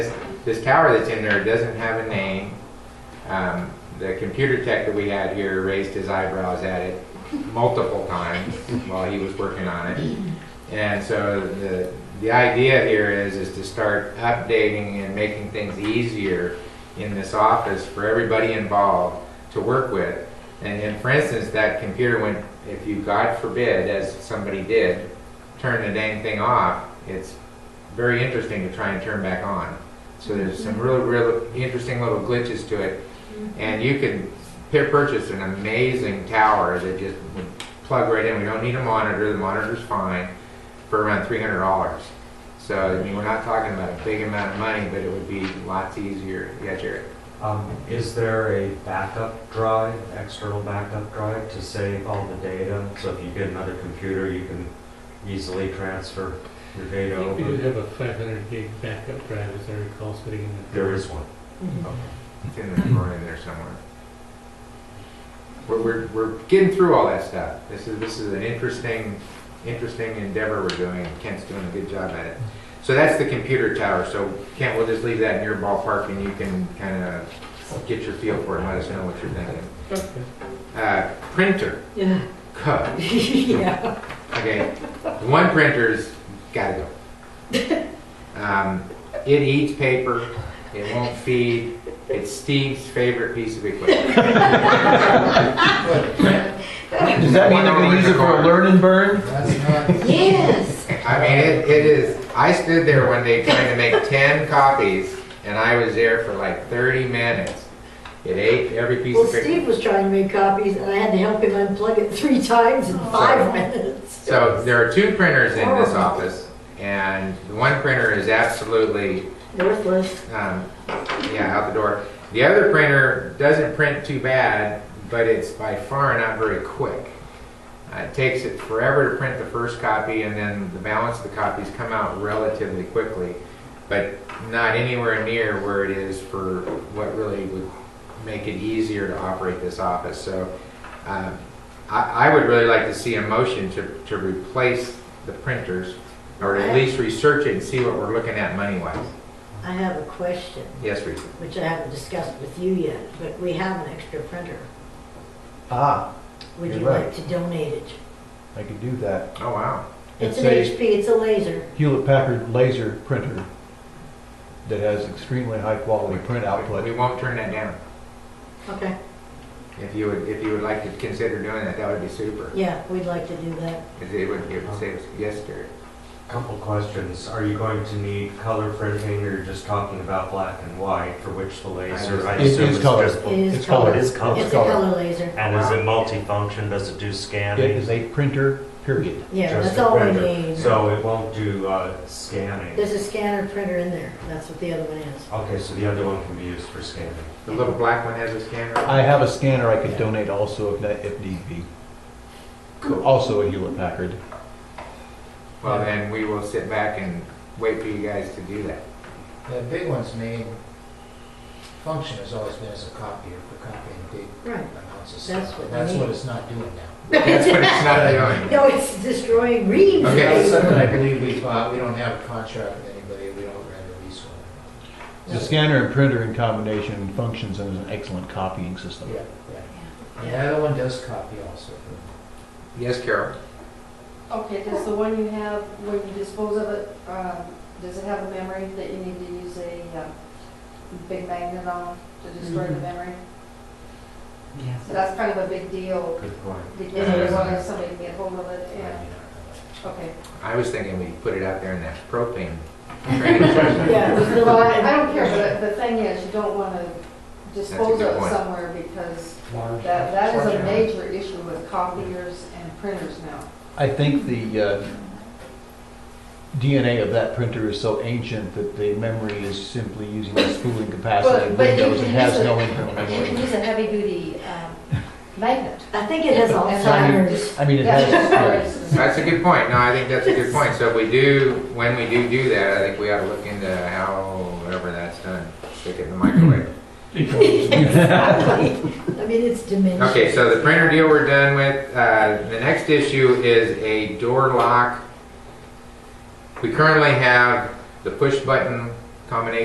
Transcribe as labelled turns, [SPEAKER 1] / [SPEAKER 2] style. [SPEAKER 1] this tower that's in there doesn't have a name. Um, the computer tech that we had here raised his eyebrows at it multiple times while he was working on it. And so the, the idea here is, is to start updating and making things easier in this office for everybody involved to work with. And, and for instance, that computer went, if you, God forbid, as somebody did, turn the dang thing off, it's very interesting to try and turn back on. So there's some really, really interesting little glitches to it. And you can pi- purchase an amazing tower that just would plug right in. We don't need a monitor, the monitor's fine, for around three hundred dollars. So, I mean, we're not talking about a big amount of money, but it would be lots easier. Yeah, Jared?
[SPEAKER 2] Um, Is there a backup drive, external backup drive to save all the data? So if you get another computer, you can easily transfer your data
[SPEAKER 3] We do
[SPEAKER 2] over?
[SPEAKER 3] have a 500 gig backup drive, as I recall, sitting in the.
[SPEAKER 2] There is one.
[SPEAKER 1] It's in the drawer in there somewhere. We're, we're, we're getting through all that stuff. This is, this is an interesting, interesting endeavor we're doing. Kent's doing a good job at it. So that's the computer tower. So Kent, we'll just leave that in your ballpark and you can kind of get your feel for it and let us know what you're thinking.
[SPEAKER 3] Okay.
[SPEAKER 1] Uh, printer,
[SPEAKER 4] Yeah.
[SPEAKER 1] Cuh.
[SPEAKER 4] Yeah.
[SPEAKER 1] Okay, one printer's gotta go. Um, it eats paper, it won't feed, it's Steve's favorite piece of equipment.
[SPEAKER 5] Does that mean they're gonna use it for a learn and burn?
[SPEAKER 4] Yes.
[SPEAKER 1] I mean, it, it is, I stood there one day trying to make ten copies, and I was there for like thirty minutes. It ate every piece
[SPEAKER 4] Well,
[SPEAKER 1] of paper.
[SPEAKER 4] Steve was trying to make copies and I had to help him unplug it three times in five minutes.
[SPEAKER 1] So there are two printers in this
[SPEAKER 4] Horrible.
[SPEAKER 1] office, and the one printer is absolutely
[SPEAKER 4] Northwest.
[SPEAKER 1] um, yeah, out the door. The other printer doesn't print too bad, but it's by far not very quick. Uh, It takes it forever to print the first copy, and then the balance of the copies come out relatively quickly, but not anywhere near where it is for what really would make it easier to operate this office. So um, I, I would really like to see a motion to, to replace the printers, or at least research it and see what we're looking at money-wise.
[SPEAKER 4] I have a question,
[SPEAKER 1] Yes, Reese?
[SPEAKER 4] which I haven't discussed with you yet, but we have an extra printer.
[SPEAKER 5] Ah,
[SPEAKER 4] Would
[SPEAKER 5] You're
[SPEAKER 4] you
[SPEAKER 5] right.
[SPEAKER 4] like to donate it?
[SPEAKER 5] I could do that.
[SPEAKER 1] Oh, wow.
[SPEAKER 4] It's
[SPEAKER 5] It's
[SPEAKER 4] an
[SPEAKER 5] a
[SPEAKER 4] HP, it's a laser.
[SPEAKER 5] Hewlett Packard laser printer that has extremely high quality print
[SPEAKER 1] We
[SPEAKER 5] output.
[SPEAKER 1] won't turn that down.
[SPEAKER 4] Okay,
[SPEAKER 1] If you would, if you would like to consider doing that, that would be super.
[SPEAKER 4] yeah, we'd like to do that.
[SPEAKER 1] 'Cause it would, it would save us, yes, Gary.
[SPEAKER 2] Couple questions. Are you going to need color printing or you're just talking about black and white for which the laser? I
[SPEAKER 1] It
[SPEAKER 5] is
[SPEAKER 2] assume is
[SPEAKER 5] color.
[SPEAKER 2] just-
[SPEAKER 4] It is
[SPEAKER 5] It's
[SPEAKER 2] Oh,
[SPEAKER 4] color.
[SPEAKER 2] it is
[SPEAKER 4] It's
[SPEAKER 2] color.
[SPEAKER 4] a
[SPEAKER 5] color.
[SPEAKER 4] color laser.
[SPEAKER 2] And is it multifunction? Does it do
[SPEAKER 5] It
[SPEAKER 2] scanning?
[SPEAKER 5] is a printer, period.
[SPEAKER 4] Yeah,
[SPEAKER 2] Just
[SPEAKER 4] that's
[SPEAKER 2] a
[SPEAKER 4] all we
[SPEAKER 2] printer.
[SPEAKER 4] need.
[SPEAKER 2] So it won't do uh, scanning?
[SPEAKER 4] There's a scanner printer in there. That's what the other one is.
[SPEAKER 2] Okay, so the other one can be used for scanning.
[SPEAKER 1] The little black one has a scanner.
[SPEAKER 5] I have a scanner I could donate also if, that- if need be. Also a Hewlett Packard.
[SPEAKER 1] Well, then we will sit back and wait for you guys to do that.
[SPEAKER 6] The big one's main function has always been as a copier for copying big
[SPEAKER 4] Right.
[SPEAKER 6] amounts of
[SPEAKER 4] That's
[SPEAKER 6] stuff.
[SPEAKER 4] what
[SPEAKER 6] and That's
[SPEAKER 4] they
[SPEAKER 6] what
[SPEAKER 4] need.
[SPEAKER 6] it's not doing now.
[SPEAKER 1] That's what it's not doing.
[SPEAKER 4] No, it's destroying reading.
[SPEAKER 1] Okay.
[SPEAKER 6] That's something I believe we bought, we don't have a contract with anybody, we don't rent a lease one.
[SPEAKER 5] The scanner and printer in combination functions as an excellent copying system.
[SPEAKER 6] Yeah, yeah. And the other one does copy also.
[SPEAKER 1] Yes, Carol?
[SPEAKER 7] Okay, does the one you have, when you dispose of it, uh, does it have a memory that you need to use a uh, big magnet on to destroy the
[SPEAKER 4] Mhm.
[SPEAKER 7] memory? So that's kind of a big deal
[SPEAKER 2] Good point.
[SPEAKER 7] because you want to have somebody to get hold of it and, okay.
[SPEAKER 1] I was thinking we put it out there in that propane. drainage.
[SPEAKER 4] Yeah, it was the
[SPEAKER 7] Well, I
[SPEAKER 4] line.
[SPEAKER 7] I don't care, but the thing is, you don't want to dispose
[SPEAKER 1] good
[SPEAKER 7] of it
[SPEAKER 1] point.
[SPEAKER 7] somewhere because that, that is a
[SPEAKER 6] Large.
[SPEAKER 7] major issue with copiers and printers now.
[SPEAKER 5] I think the uh, DNA of that printer is so ancient that the memory is simply using the spooling capacity of
[SPEAKER 7] But- but you
[SPEAKER 5] Windows
[SPEAKER 7] can
[SPEAKER 5] and has
[SPEAKER 7] use
[SPEAKER 5] no
[SPEAKER 7] it-
[SPEAKER 5] internal
[SPEAKER 7] You can
[SPEAKER 5] memory.
[SPEAKER 7] use a heavy-duty um, magnet.
[SPEAKER 4] I think it has Alzheimer's.
[SPEAKER 5] I mean, it
[SPEAKER 7] That's
[SPEAKER 5] has,
[SPEAKER 7] just
[SPEAKER 5] yeah.
[SPEAKER 7] for-
[SPEAKER 1] That's a good point. No, I think that's a good point. So if we do, when we do do that, I think we ought to look into how, whatever that's done, stick it in the microwave.
[SPEAKER 4] I mean, it's dementia.
[SPEAKER 1] Okay, so the printer deal we're done with. Uh, The next issue is a door lock. We currently have the push button combination